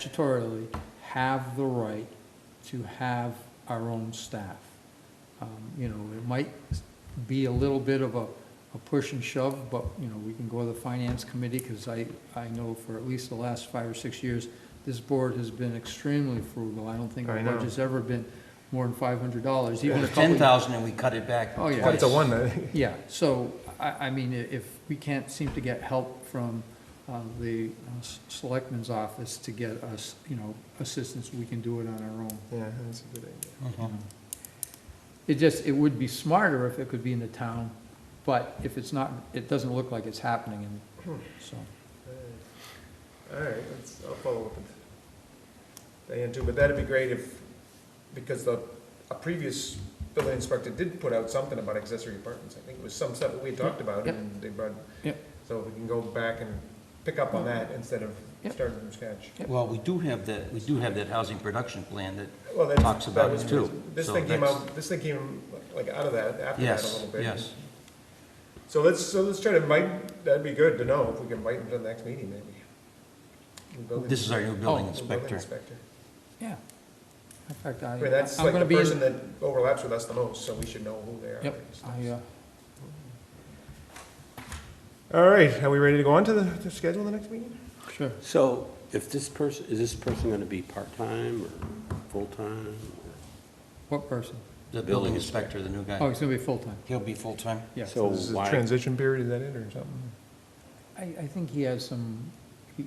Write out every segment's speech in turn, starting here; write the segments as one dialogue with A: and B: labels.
A: statutorily have the right to have our own staff. Um, You know, it might be a little bit of a, a push and shove, but, you know, we can go to the finance committee, because I, I know for at least the last five or six years, this board has been extremely frugal. I don't think our
B: I know.
A: budget's ever been more than five hundred dollars,
C: It
A: even a
C: was
A: couple.
C: ten thousand and we cut it back
A: Oh, yeah.
B: That's
C: twice.
B: the one that,
A: Yeah, so, I, I mean, i- if we can't seem to get help from uh, the uh, s- selectmen's office to get us, you know, assistance, we can do it on our own.
B: yeah, that's a good idea.
C: Mhm.
A: It just, it would be smarter if it could be in the town, but if it's not, it doesn't look like it's happening,
B: Hmm.
A: and so.
B: All right, let's, I'll follow up with Diane too, but that'd be great if, because the, a previous building inspector did put out something about accessory apartments. I think it was some stuff that we had talked about
A: Yep.
B: and they brought,
A: Yep.
B: so we can go back and pick up on that instead of
A: Yep.
B: starting from scratch.
C: Well, we do have that, we do have that housing production plan that,
B: Well, that's-
C: Talks
B: that
C: about it,
B: was-
C: too.
B: This
C: So
B: thing came
C: that's-
B: out, this thing came like out of that, after that a
C: yes,
B: little bit.
C: yes.
B: So let's, so let's try to invite, that'd be good to know if we can invite him to the next meeting maybe. The building-
C: This is our new building
A: Oh.
B: the building
C: inspector.
A: Yeah. In fact, I,
B: I mean, that's
A: I'm
B: like
A: gonna
B: the
A: be
B: person
A: in.
B: that overlaps with us the most, so we should know who they are.
A: Yep, I, uh,
B: All right, are we ready to go on to the, to schedule the next meeting?
A: sure.
D: So if this person, is this person going to be part-time or full-time? or-
A: What person?
C: The building inspector, the new
A: Oh,
C: guy,
A: he's gonna be full-time,
C: he'll be full-time.
A: yes.
D: So
B: This is a
D: why,
B: transition period, is that it, or something?
A: I, I think he has some, he,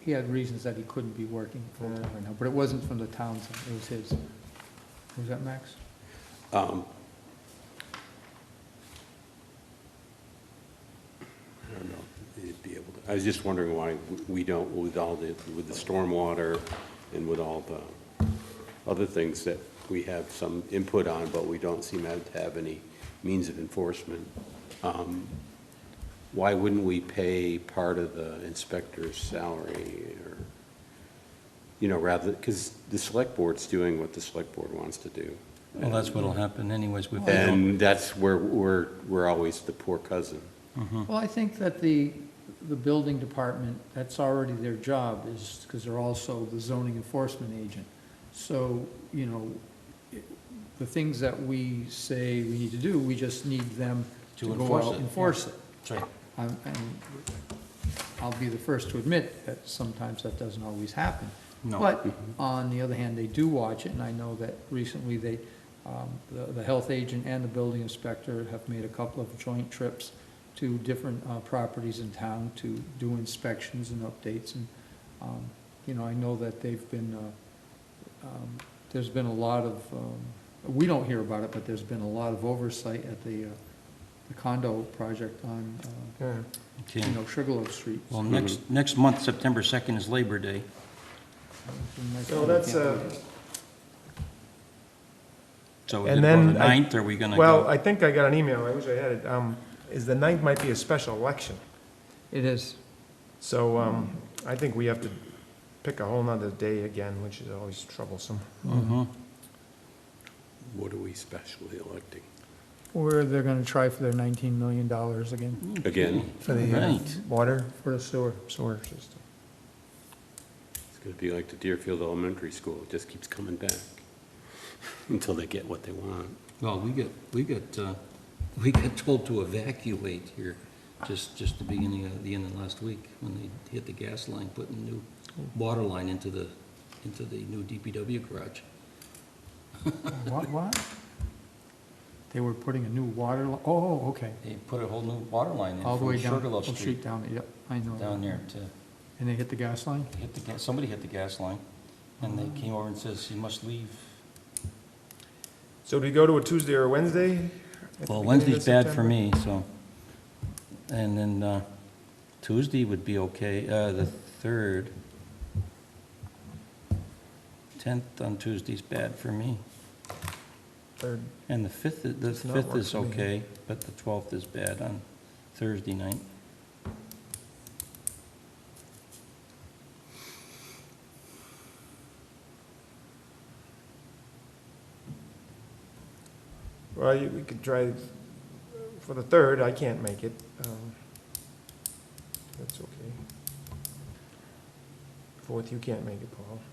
A: he had reasons that he couldn't be working full-time right now, but it wasn't from the town, it was his. Was that Max?
D: um, I don't know, it'd be able to, I was just wondering why we don't, with all the, with the stormwater and with all the other things that we have some input on, but we don't seem to have any means of enforcement. um, Why wouldn't we pay part of the inspector's salary or? you know, rather, because the select board's doing what the select board wants to do.
C: Well, that's what'll happen anyways. we-
D: And that's where we're, we're always the poor cousin.
A: Well, I think that the, the building department, that's already their job, is, because they're also the zoning enforcement agent. So, you know, it- the things that we say we need to do, we just need them
C: To
A: to go
C: enforce
A: out
C: it,
A: and enforce it.
C: That's right.
A: Um, And I'll be the first to admit that sometimes that doesn't always happen.
C: No. Mm-hmm.
A: But on the other hand, they do watch it, and I know that recently they, um, the, the health agent and the building inspector have made a couple of joint trips to different uh, properties in town to do inspections and updates, and, um, you know, I know that they've been, uh, um, there's been a lot of, um, we don't hear about it, but there's been a lot of oversight at the uh, the condo project on, uh,
B: Yeah.
C: Okay.
A: you know, Sugarloaf Street.
C: Well,
D: Mm-hmm.
C: next, next month, September 2nd is Labor Day.
B: So that's, uh,
C: So
B: And
C: is it on the
B: then I-
C: 9th, are we gonna go?
B: well, I think I got an email, I wish I had it, um, is the ninth might be a special election.
A: It is.
B: So, um, I think we have to pick a whole nother day again, which is always troublesome.
C: Mhm.
D: What are we specially electing?
E: Or they're gonna try for their nineteen million dollars again
D: Again,
B: For the uh,
C: Right.
B: water
A: For the sewer.
B: sewer system.
D: it's going to be like the Deerfield Elementary School, it just keeps coming back until they get what they want.
C: Well, we get, we get, uh, we got told to evacuate here just, just the beginning of, the end of last week when they hit the gas line, putting the new water line into the, into the new DPW garage.
A: What, what? They were putting a new water, li- oh, okay.
C: They put a whole new water line in
A: All the
C: from
A: way down,
C: Sugarloaf
A: Oak
C: Street
A: Street down, there. yep, I know.
C: down there to
A: And they hit the gas line?
C: hit the, gas. somebody hit the gas line. And
A: Mm-hmm.
C: they came over and says, you must leave.
B: So do we go to a Tuesday or a Wednesday? at the beginning
C: Well,
B: of
C: Wednesday's bad for
B: September?
C: me, so. And then uh, Tuesday would be okay, uh, the 3rd. 10th on Tuesday's bad for me.
B: Third.
C: And the 5th, i- the
B: Does not
C: 5th
B: work
C: is
B: for me.
C: okay, but the 12th is bad on Thursday night.
B: Well, you- we could try, for the third, I can't make it. um, That's okay. fourth, you can't make it, Paul.